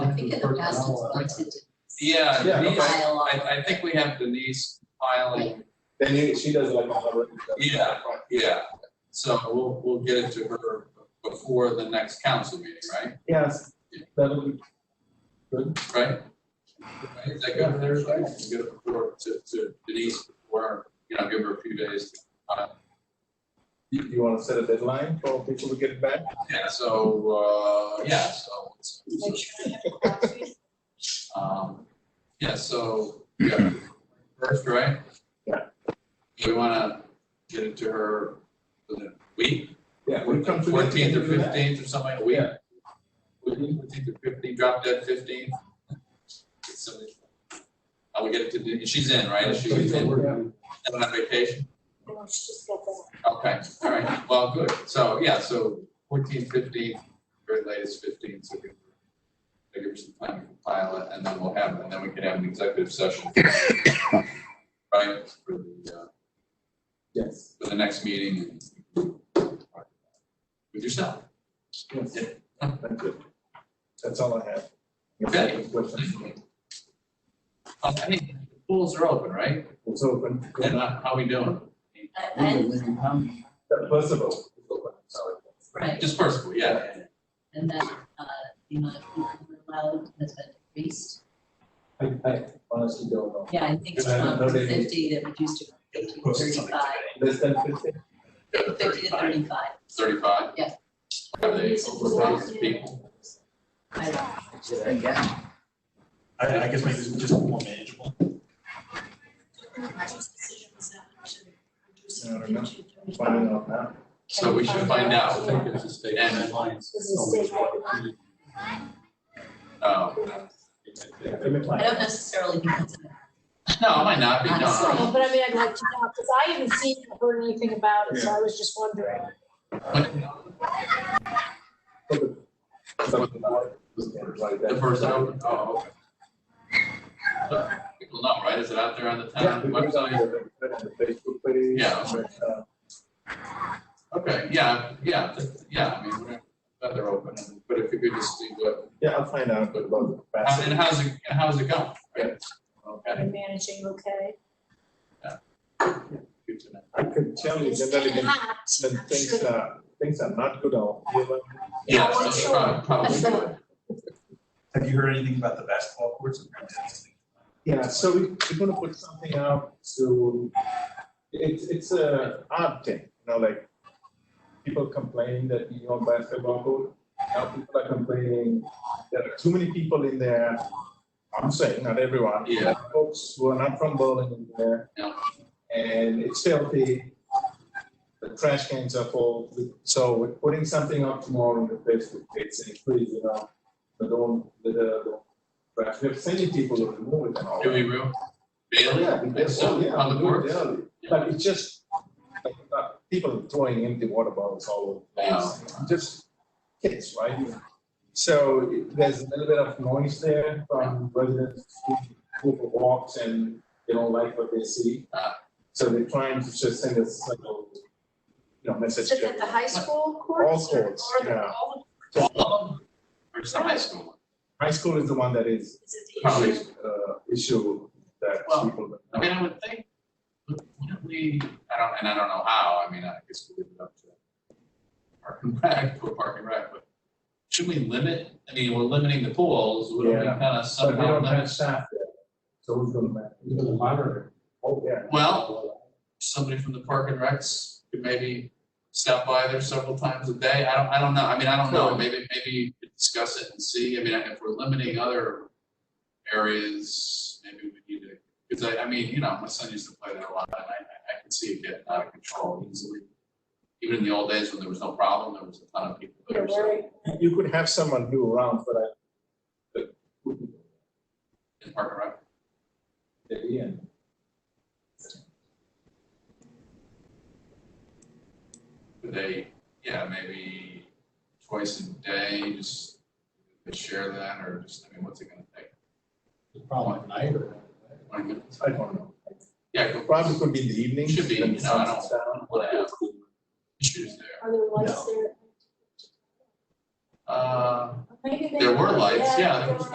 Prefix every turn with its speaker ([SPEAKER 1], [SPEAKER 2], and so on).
[SPEAKER 1] think in the past it's gone to
[SPEAKER 2] Yeah,
[SPEAKER 3] Yeah,
[SPEAKER 2] Denise,
[SPEAKER 3] okay.
[SPEAKER 1] file
[SPEAKER 2] I, I think we have Denise filing,
[SPEAKER 3] Then you, she does it like on her.
[SPEAKER 2] Yeah. yeah. So we'll, we'll get it to her before the next council meeting, right?
[SPEAKER 3] Yes. That would be good.
[SPEAKER 2] Right? Right, Is that good with everybody? We'll Get it before, to, to Denise, before, you know, give her a few days. Uh,
[SPEAKER 3] You, you want to set a deadline for people to get back?
[SPEAKER 2] Yeah, so, uh, yeah, so. it's-
[SPEAKER 4] Make sure I have a copy.
[SPEAKER 2] Um, yeah, so, yeah, first, right?
[SPEAKER 3] Yeah.
[SPEAKER 2] Do we wanna get it to her for the week,
[SPEAKER 3] Yeah, we come to. the-
[SPEAKER 2] fourteenth or fifteenth or something, a week?
[SPEAKER 3] Yeah.
[SPEAKER 2] Fourteenth or fifteenth, drop dead fifteenth? I will get it to, Denise. she's in, right? She's in,
[SPEAKER 3] Yeah.
[SPEAKER 2] on vacation?
[SPEAKER 4] No, she just got that.
[SPEAKER 2] Okay, all right, well, good, so, yeah, so fourteenth, fifteenth, very latest fifteenth, so we can give her some time to compile it, and then we'll have, and then we can have an executive session. Right, for the, uh,
[SPEAKER 3] Yes,
[SPEAKER 2] for the next meeting. With yourself.
[SPEAKER 3] yes. Thank you. That's all I have.
[SPEAKER 2] Okay.
[SPEAKER 3] Questions?
[SPEAKER 2] Uh, Hey, pools are open, right?
[SPEAKER 3] It's open.
[SPEAKER 2] And uh, how we doing?
[SPEAKER 1] I, I,
[SPEAKER 3] First of all, it's open. sorry.
[SPEAKER 1] right,
[SPEAKER 2] Just first of all, yeah.
[SPEAKER 1] and that, uh, the amount of people who are allowed has been increased.
[SPEAKER 3] I, I honestly don't know.
[SPEAKER 1] Yeah, I think it's
[SPEAKER 3] Yeah, I
[SPEAKER 1] from
[SPEAKER 3] know they-
[SPEAKER 1] fifty that reduced to fifty to thirty-five,
[SPEAKER 3] Less than fifteen?
[SPEAKER 1] fifty to thirty-five.
[SPEAKER 2] Thirty-five?
[SPEAKER 1] Yes.
[SPEAKER 2] Are they overwhelmed people?
[SPEAKER 1] I-
[SPEAKER 5] I, I guess maybe it's just more manageable.
[SPEAKER 4] This decision was not to reduce
[SPEAKER 3] I don't know.
[SPEAKER 4] it to 35.
[SPEAKER 3] Find out now.
[SPEAKER 2] So we should find
[SPEAKER 5] I
[SPEAKER 2] out.
[SPEAKER 5] think it's a state guidelines.
[SPEAKER 4] This is a state law.
[SPEAKER 2] Oh,
[SPEAKER 1] I don't necessarily think it's,
[SPEAKER 2] no, it might not be, no, no.
[SPEAKER 4] No, But I mean, I'd like to know, because I haven't seen or heard anything about it, so I was just wondering.
[SPEAKER 3] Something like that.
[SPEAKER 2] The first open, oh, okay. So, People know, right? Is it out there on the
[SPEAKER 3] Yeah,
[SPEAKER 2] town
[SPEAKER 3] we put it on
[SPEAKER 2] website?
[SPEAKER 3] the- put it on the Facebook page.
[SPEAKER 2] Yeah.
[SPEAKER 3] but, uh,
[SPEAKER 2] Okay, yeah, yeah, th- yeah, I mean, we're- but they're open, but if you could just see what,
[SPEAKER 3] Yeah, I'll find out about the capacity.
[SPEAKER 2] and how's it, how's it going? right? Okay.
[SPEAKER 4] You're managing, okay?
[SPEAKER 2] good to know.
[SPEAKER 3] I could tell you
[SPEAKER 4] It's
[SPEAKER 3] generally
[SPEAKER 4] been
[SPEAKER 3] when,
[SPEAKER 4] hot.
[SPEAKER 3] when
[SPEAKER 4] I'm
[SPEAKER 3] things
[SPEAKER 4] sure.
[SPEAKER 3] are, things are not good out here, but
[SPEAKER 2] Yeah, so
[SPEAKER 4] I'm sure.
[SPEAKER 2] prob- probably good.
[SPEAKER 5] Have you heard anything about the basketball courts?
[SPEAKER 3] Yeah, so we- we're gonna put something out to, it's, it's a odd thing, you know, like, people complain that you know basketball court, now people are complaining, there are too many people in there. I'm saying, not everyone.
[SPEAKER 2] Yeah.
[SPEAKER 3] Folks who are not from Berlin in there.
[SPEAKER 2] Yeah.
[SPEAKER 3] And it's filthy, the trash cans are full, so we're putting something up tomorrow on the Facebook page, saying, please, you know, don't, litter, don't but we're sending people to remove it and all.
[SPEAKER 2] Do we real? Daily?
[SPEAKER 3] Yeah, we did, oh, yeah,
[SPEAKER 2] Public
[SPEAKER 3] we do it
[SPEAKER 2] works?
[SPEAKER 3] daily. But it's just, like, uh, people throwing empty water bottles all over the place, just kids, right? So it- there's a little bit of noise there from residents who who walks and they don't like what they see.
[SPEAKER 2] Ah.
[SPEAKER 3] So they're trying to just send us like a, you know, message.
[SPEAKER 4] Is it at the high school courts? or-
[SPEAKER 3] courts,
[SPEAKER 4] or the-
[SPEAKER 3] yeah.
[SPEAKER 4] all
[SPEAKER 2] All of them? Or just the high school? one?
[SPEAKER 3] High school is the one that is,
[SPEAKER 4] the- is it the
[SPEAKER 2] Probably.
[SPEAKER 4] issue?
[SPEAKER 3] uh, issue that
[SPEAKER 2] Well,
[SPEAKER 3] people.
[SPEAKER 2] I mean, I would think, wouldn't we, I don't, and I don't know how, I mean, I guess we leave it up to Park and Rec, to a Park and Rec, but should we limit, I mean, we're limiting the pools, wouldn't we
[SPEAKER 3] Yeah.
[SPEAKER 2] kind of
[SPEAKER 3] But we
[SPEAKER 2] somehow
[SPEAKER 3] don't have
[SPEAKER 2] limit?
[SPEAKER 3] staff there, so who's gonna manage?
[SPEAKER 6] the monitor.
[SPEAKER 3] Oh, yeah.
[SPEAKER 2] Well, somebody from the Park and Recs could maybe stop by there several times a day, I don't, I don't know, I mean, I don't know,
[SPEAKER 3] Sure.
[SPEAKER 2] maybe, maybe you could discuss it and see, I mean, if we're limiting other areas, maybe we need to, because I, I mean, you know, my son used to play there a lot, and I, I I could see it getting out of control easily. Even in the old days when there was no problem, there was a ton of people
[SPEAKER 4] Yeah,
[SPEAKER 2] there, so,
[SPEAKER 4] where-
[SPEAKER 3] You could have someone do around for that. but who-
[SPEAKER 2] in Park and Rec.
[SPEAKER 3] at the end.
[SPEAKER 2] Could they, yeah, maybe twice a day, just could share that, or just, I mean, what's it gonna take?
[SPEAKER 6] Probably at night or.
[SPEAKER 2] Twenty minutes?
[SPEAKER 3] I don't know.
[SPEAKER 2] Yeah, go-
[SPEAKER 3] Probably could be in the evening.
[SPEAKER 2] Should be,
[SPEAKER 3] when the
[SPEAKER 2] you know, I
[SPEAKER 3] sun
[SPEAKER 2] don't-
[SPEAKER 3] sets down.
[SPEAKER 2] what I have issues there.
[SPEAKER 4] Are there lights there?
[SPEAKER 2] Uh,
[SPEAKER 4] Maybe they-
[SPEAKER 2] There were lights, yeah, there was